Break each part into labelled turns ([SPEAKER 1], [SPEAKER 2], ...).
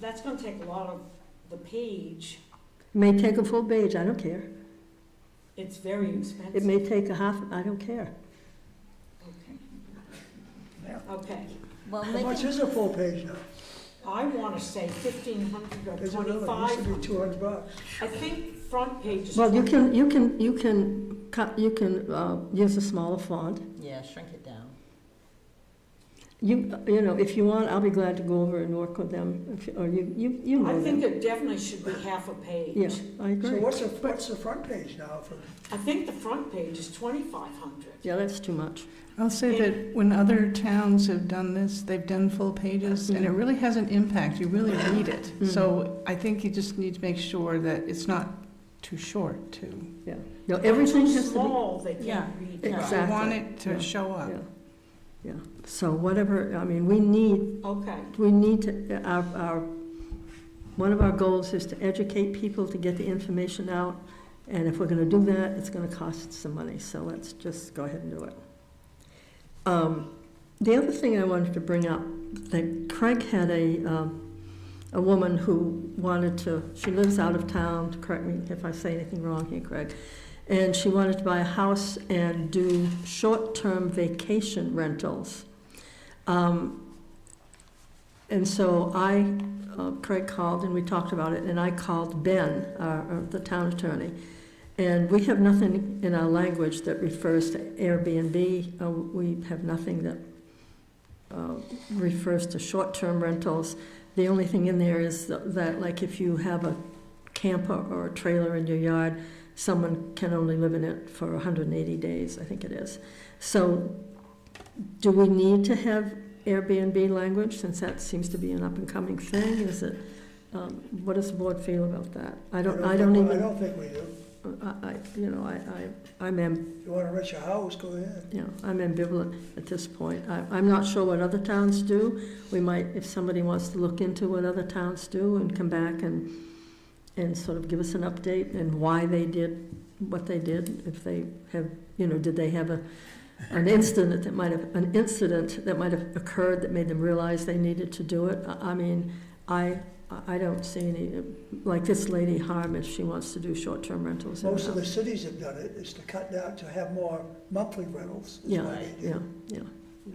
[SPEAKER 1] That's gonna take a lot of the page.
[SPEAKER 2] May take a full page, I don't care.
[SPEAKER 1] It's very
[SPEAKER 2] Mm. It
[SPEAKER 1] expensive.
[SPEAKER 2] may take a half, I don't care.
[SPEAKER 3] Yeah.
[SPEAKER 1] Okay,
[SPEAKER 4] Well,
[SPEAKER 3] How much is a full page now?
[SPEAKER 1] I wanna say fifteen hundred or
[SPEAKER 3] Is it another, it
[SPEAKER 1] twenty-five
[SPEAKER 3] used to be
[SPEAKER 1] hundred.
[SPEAKER 3] two hundred bucks.
[SPEAKER 1] I think front page is.
[SPEAKER 2] Well, you
[SPEAKER 1] 20.
[SPEAKER 2] can, you can, you can cut, you can, uh, use a smaller font.
[SPEAKER 4] yeah, shrink it down.
[SPEAKER 2] You, you know, if you want, I'll be glad to go over and work with them, if- or you, you, you
[SPEAKER 1] I
[SPEAKER 2] know
[SPEAKER 1] think
[SPEAKER 2] them.
[SPEAKER 1] it definitely should be half a page.
[SPEAKER 2] Yeah, I
[SPEAKER 3] So
[SPEAKER 2] agree.
[SPEAKER 3] what's the, what's the front page now for,
[SPEAKER 1] I think the front page is twenty-five hundred.
[SPEAKER 2] Yeah, that's too much.
[SPEAKER 5] I'll say that when other towns have done this, they've done full pages, and it
[SPEAKER 2] Mm-hmm.
[SPEAKER 5] really has an impact, you really read it. So I think you just need to make sure that it's not too short, too.
[SPEAKER 2] No, everything
[SPEAKER 1] Too
[SPEAKER 2] has to
[SPEAKER 1] small, they
[SPEAKER 5] Yeah.
[SPEAKER 1] can't read.
[SPEAKER 2] be,
[SPEAKER 4] Yeah.
[SPEAKER 5] You want
[SPEAKER 2] exactly.
[SPEAKER 5] it
[SPEAKER 2] Yeah.
[SPEAKER 5] to show up.
[SPEAKER 2] Yeah, yeah. So whatever, I mean, we need,
[SPEAKER 1] Okay,
[SPEAKER 2] we need to, our, our, one of our goals is to educate people to get the information out. And if we're gonna do that, it's gonna cost some money, so let's just go ahead and do it. Um, The other thing I wanted to bring up, that Craig had a, um, a woman who wanted to, she lives out of town, correct me if I say anything wrong here, Craig. And she wanted to buy a house and do short-term vacation rentals. Um, And so I, uh, Craig called and we talked about it, and I called Ben, our- our- the town attorney. And we have nothing in our language that refers to Airbnb. Uh, We have nothing that uh, refers to short-term rentals. The only thing in there is tha- that, like, if you have a camper or a trailer in your yard, someone can only live in it for 180 days, I think it is. So do we need to have Airbnb language, since that seems to be an up-and-coming thing? Is it, um, what does the board feel about that? I don't, I don't
[SPEAKER 3] think-
[SPEAKER 2] even.
[SPEAKER 3] I don't think we do.
[SPEAKER 2] I, I- you know, I, I, I'm, am-
[SPEAKER 3] If you wanna rent your house, go ahead.
[SPEAKER 2] you know, I'm ambivalent at this point. I, I'm not sure what other towns do. We might, if somebody wants to look into what other towns do and come back and, and sort of give us an update and why they did what they did, if they have, you know, did they have a, an incident that might have, an incident that might have occurred that made them realize they needed to do it? I, I mean, I, I don't see any, like this lady harm if she wants to do short-term rentals. in her
[SPEAKER 3] Most of
[SPEAKER 2] house.
[SPEAKER 3] the cities have done it, is to cut down, to have more monthly rentals. is
[SPEAKER 2] Yeah,
[SPEAKER 3] what they do.
[SPEAKER 2] yeah, yeah.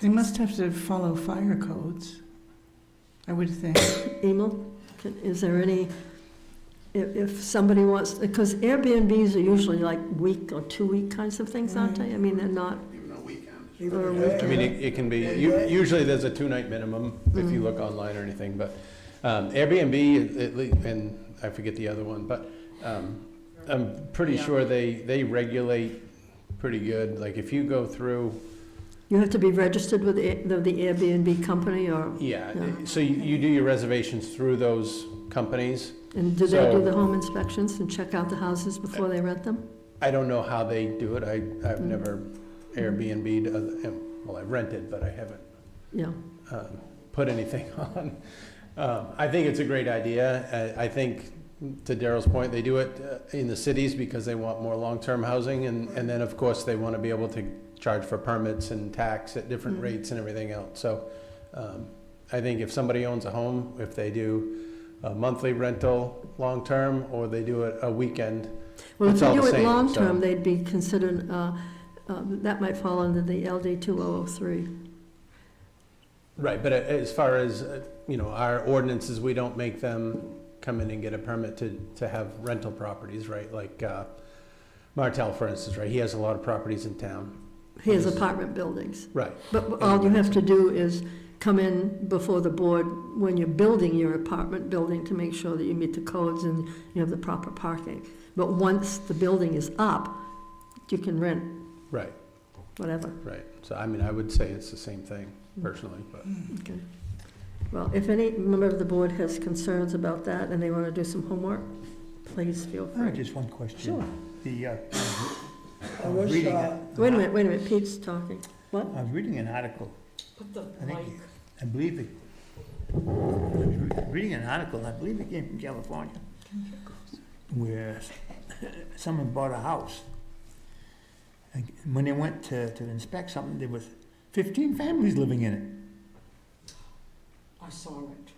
[SPEAKER 5] They must have to follow fire codes, I would think.
[SPEAKER 2] Emil, can- is there any, if, if somebody wants, because Airbnbs are usually like week or two-week kinds of things, aren't they? I mean, they're not,
[SPEAKER 6] Even a weekend.
[SPEAKER 3] Even
[SPEAKER 2] Or
[SPEAKER 3] if-
[SPEAKER 6] I mean, it it can be, u- usually there's a two-night minimum if you look online or anything, but um, Airbnb, at le- and I forget the other one, but um, I'm pretty
[SPEAKER 4] Yeah.
[SPEAKER 6] sure they, they regulate pretty good. Like, if you go through,
[SPEAKER 2] you have to be registered with the the the Airbnb company or,
[SPEAKER 6] yeah,
[SPEAKER 2] Yeah.
[SPEAKER 6] so you you do your reservations through those companies.
[SPEAKER 2] and do they do
[SPEAKER 6] So-
[SPEAKER 2] the home inspections and check out the houses before they rent them?
[SPEAKER 6] I don't know how they do it. I, I've never Airbnb'd, other- well, I've rented, but I haven't
[SPEAKER 2] Yeah,
[SPEAKER 6] um, put anything on. Um, I think it's a great idea. I I think, to Daryl's point, they do it uh, in the cities because they want more long-term housing, and and then, of course, they want to be able to charge for permits and tax at different rates and everything else. So um, I think if somebody owns a home, if they do a monthly rental, long-term, or they do it a weekend,
[SPEAKER 2] well, if
[SPEAKER 6] It's
[SPEAKER 2] you
[SPEAKER 6] all
[SPEAKER 2] do
[SPEAKER 6] the
[SPEAKER 2] it
[SPEAKER 6] same, so-
[SPEAKER 2] long-term, they'd be considered, uh, uh, that might fall under the LD 2003.
[SPEAKER 6] Right, but a- as far as, uh, you know, our ordinances, we don't make them come in and get a permit to, to have rental properties, right? Like uh, Martel, for instance, right, he has a lot of properties in town.
[SPEAKER 2] Here's apartment buildings.
[SPEAKER 6] Right,
[SPEAKER 2] But all you have to do is come in before the board when you're building your apartment building to make sure that you meet the codes and you have the proper parking. But once the building is up, you can rent
[SPEAKER 6] right,
[SPEAKER 2] whatever.
[SPEAKER 6] right. So I mean, I would say it's the same thing personally, but
[SPEAKER 2] Okay. Well, if any member of the board has concerns about that and they want to do some homework, please feel
[SPEAKER 7] I have
[SPEAKER 2] free.
[SPEAKER 7] just one question.
[SPEAKER 2] Sure.
[SPEAKER 7] The, uh,
[SPEAKER 3] I was,
[SPEAKER 7] Reading it.
[SPEAKER 3] uh,
[SPEAKER 2] Wait a minute, wait a minute, Pete's talking. What?
[SPEAKER 7] I was reading an article,
[SPEAKER 1] put the
[SPEAKER 7] I
[SPEAKER 1] mic,
[SPEAKER 7] think, I believe it, I was re- reading an article, and I believe it came from California, where someone bought a house. And when they went to, to inspect something, there was fifteen families living in it.
[SPEAKER 1] I saw it.